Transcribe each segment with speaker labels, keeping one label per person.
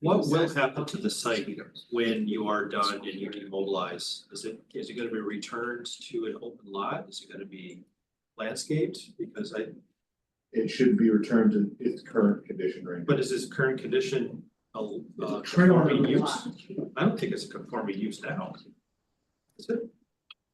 Speaker 1: What will happen to the site when you are done and you demobilize? Is it, is it gonna be returned to an open lot? Is it gonna be landscaped? Because I,
Speaker 2: It should be returned to its current condition right now.
Speaker 1: but is this current condition a,
Speaker 2: It's
Speaker 1: uh,
Speaker 2: a trailer on
Speaker 1: conforming
Speaker 2: the
Speaker 1: use? I don't think it's a conforming use now. Is it?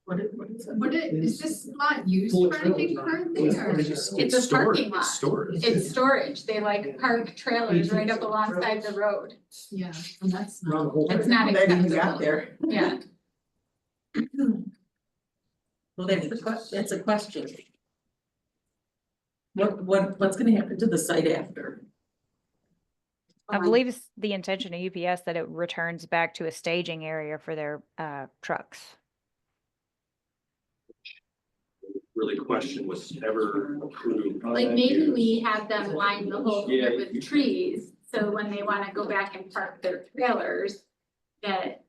Speaker 3: What is, what is it?
Speaker 4: What it, is this lot used
Speaker 5: Full
Speaker 4: for anything
Speaker 5: trailer.
Speaker 4: currently or?
Speaker 1: It's
Speaker 4: It's a
Speaker 1: stored,
Speaker 4: parking lot.
Speaker 1: It's stored.
Speaker 4: It's storage, they like park trailers right up alongside the road.
Speaker 3: Yeah.
Speaker 4: And that's
Speaker 5: Around the
Speaker 4: not,
Speaker 5: whole
Speaker 4: that's not
Speaker 3: That even
Speaker 4: acceptable,
Speaker 3: got there.
Speaker 4: yeah.
Speaker 3: Well, that's the question, that's a question. What, what, what's gonna happen to the site after?
Speaker 6: I
Speaker 4: Um,
Speaker 6: believe it's the intention of UPS that it returns back to a staging area for their uh trucks.
Speaker 1: Really question was ever approved.
Speaker 4: Like maybe we have them line the whole
Speaker 1: Yeah,
Speaker 4: thing
Speaker 1: you-
Speaker 4: with trees, so when they wanna go back and park their trailers, that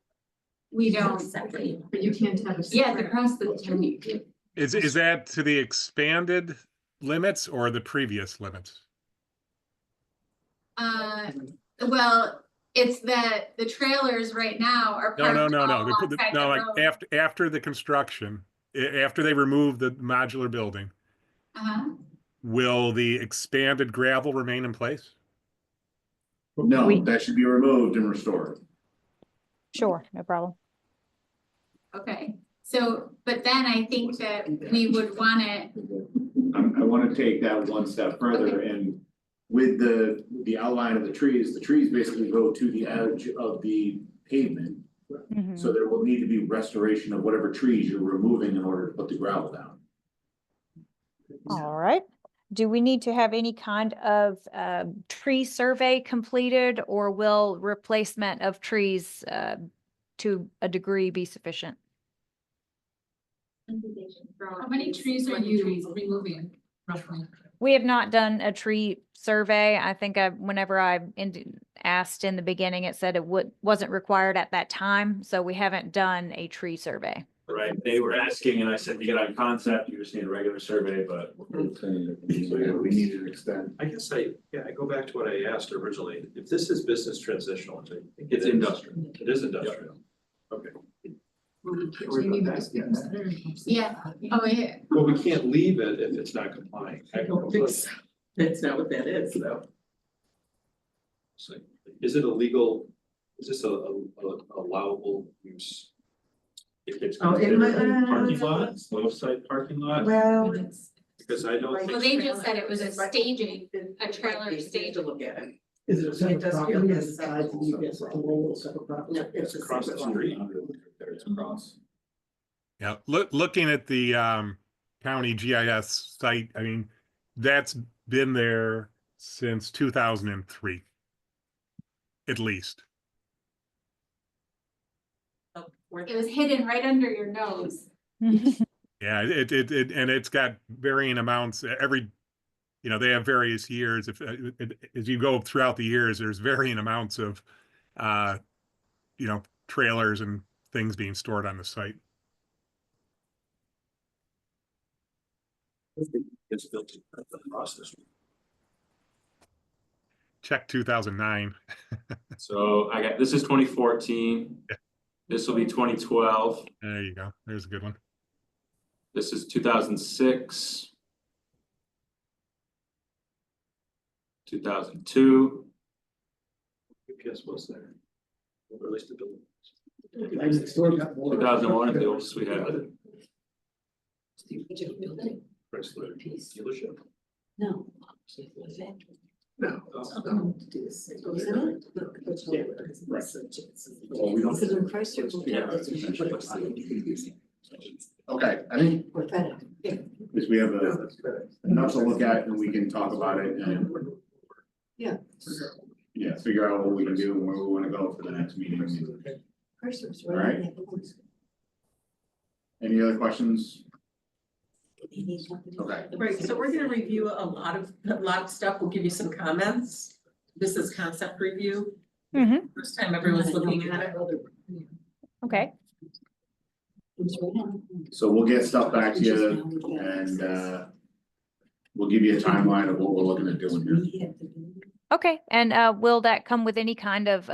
Speaker 4: we don't.
Speaker 3: Exactly.
Speaker 4: But you can't have a. Yes, across the street.
Speaker 7: Is, is that to the expanded limits or the previous limits?
Speaker 4: Uh, well, it's that the trailers right now are
Speaker 7: No,
Speaker 4: parked
Speaker 7: no, no,
Speaker 4: all
Speaker 7: no.
Speaker 6: Oh,
Speaker 7: the- the-
Speaker 4: alongside
Speaker 7: No,
Speaker 4: the
Speaker 7: like
Speaker 4: road.
Speaker 7: after, after the construction, a- after they remove the modular building,
Speaker 4: Uh-huh.
Speaker 7: will the expanded gravel remain in place?
Speaker 6: We-
Speaker 2: No, that should be removed and restored.
Speaker 6: Sure, no problem.
Speaker 4: Okay, so, but then I think that we would wanna,
Speaker 2: I, I wanna take that one step further and with the, the outline of the trees, the trees basically go to the edge of the pavement.
Speaker 6: Mhm.
Speaker 2: So there will need to be restoration of whatever trees you're removing in order to put the gravel down.
Speaker 6: All right. Do we need to have any kind of uh tree survey completed or will replacement of trees uh to a degree be sufficient?
Speaker 4: how
Speaker 3: How many trees are you removing roughly?
Speaker 6: We have not done a tree survey. I think I, whenever I ind- asked in the beginning, it said it would, wasn't required at that time, so we haven't done a tree survey.
Speaker 8: Right, they were asking and I said, you got a concept, you just need a regular survey, but.
Speaker 2: So yeah, we need to extend.
Speaker 1: I guess I, yeah, I go back to what I asked originally. If this is business transitional, which I think it
Speaker 8: It's
Speaker 1: is.
Speaker 8: industrial.
Speaker 1: It is industrial.
Speaker 4: Yeah, oh, yeah,
Speaker 1: Well, we can't leave it if it's not complying.
Speaker 3: I don't think so. That's not what that is.
Speaker 1: No. So, is it a legal, is this a, a- a- allowable use?
Speaker 8: If it's
Speaker 5: Oh, it might-
Speaker 8: considered parking
Speaker 5: uh,
Speaker 8: lot, slow side parking lot.
Speaker 5: Well,
Speaker 1: Because I don't
Speaker 4: well,
Speaker 1: think,
Speaker 4: they just said it was a staging, a trailer
Speaker 3: Take a
Speaker 4: staging.
Speaker 3: look at it.
Speaker 5: is it a separate
Speaker 3: does
Speaker 5: property?
Speaker 3: feel like
Speaker 5: Is it tied to the US parole, separate property?
Speaker 3: No, it's a
Speaker 1: across the
Speaker 3: separate lot.
Speaker 1: street.
Speaker 2: There it's across.
Speaker 7: Yeah, look, looking at the um county GIS site, I mean, that's been there since two thousand and three. At least.
Speaker 3: Oh, where-
Speaker 4: It was hidden right under your nose.
Speaker 7: Yeah, it it it and it's got varying amounts uh, every, you know, they have various years. If uh, it- it- as you go throughout the years, there's varying amounts of uh, you know, trailers and things being stored on the site.
Speaker 1: it's built across the street.
Speaker 7: Check two thousand nine.
Speaker 8: So I got, this is twenty fourteen. This will be twenty twelve.
Speaker 7: There you go. There's a good one.
Speaker 8: This is two thousand six. Two thousand two.
Speaker 1: UPS was there. Or at least the building.
Speaker 5: I mean, it's still got more-
Speaker 8: 2001 if they want us, we have it.
Speaker 1: Chrysler dealership.
Speaker 9: No.
Speaker 2: No.
Speaker 1: Oh,
Speaker 3: Um, do this.
Speaker 9: Isn't
Speaker 3: Yeah,
Speaker 2: right.
Speaker 3: right.
Speaker 2: Well, we don't-
Speaker 9: Because in Chrysler, we
Speaker 8: Yeah.
Speaker 9: have this issue.
Speaker 2: Okay, I think
Speaker 9: Or better.
Speaker 2: is we have a, enough to look at and we can talk about it and, yeah, figure out what we can do and where we wanna go for the next meeting.
Speaker 9: Chrysler's
Speaker 2: All right.
Speaker 9: right. they have ones.
Speaker 2: Any other questions?
Speaker 9: They need something to-
Speaker 2: Okay.
Speaker 3: Right, so we're gonna review a lot of, a lot of stuff, we'll give you some comments. This is concept review,
Speaker 6: Mhm,
Speaker 3: first time everyone's looking at it.
Speaker 6: Okay,
Speaker 9: It's right on.
Speaker 2: So we'll get stuff back to
Speaker 9: It's just
Speaker 2: you
Speaker 9: now we've got
Speaker 2: and,
Speaker 9: access.
Speaker 2: uh, we'll give you a timeline of what we're looking at doing here.
Speaker 9: We have to do it.
Speaker 6: okay. And uh will that come with any kind of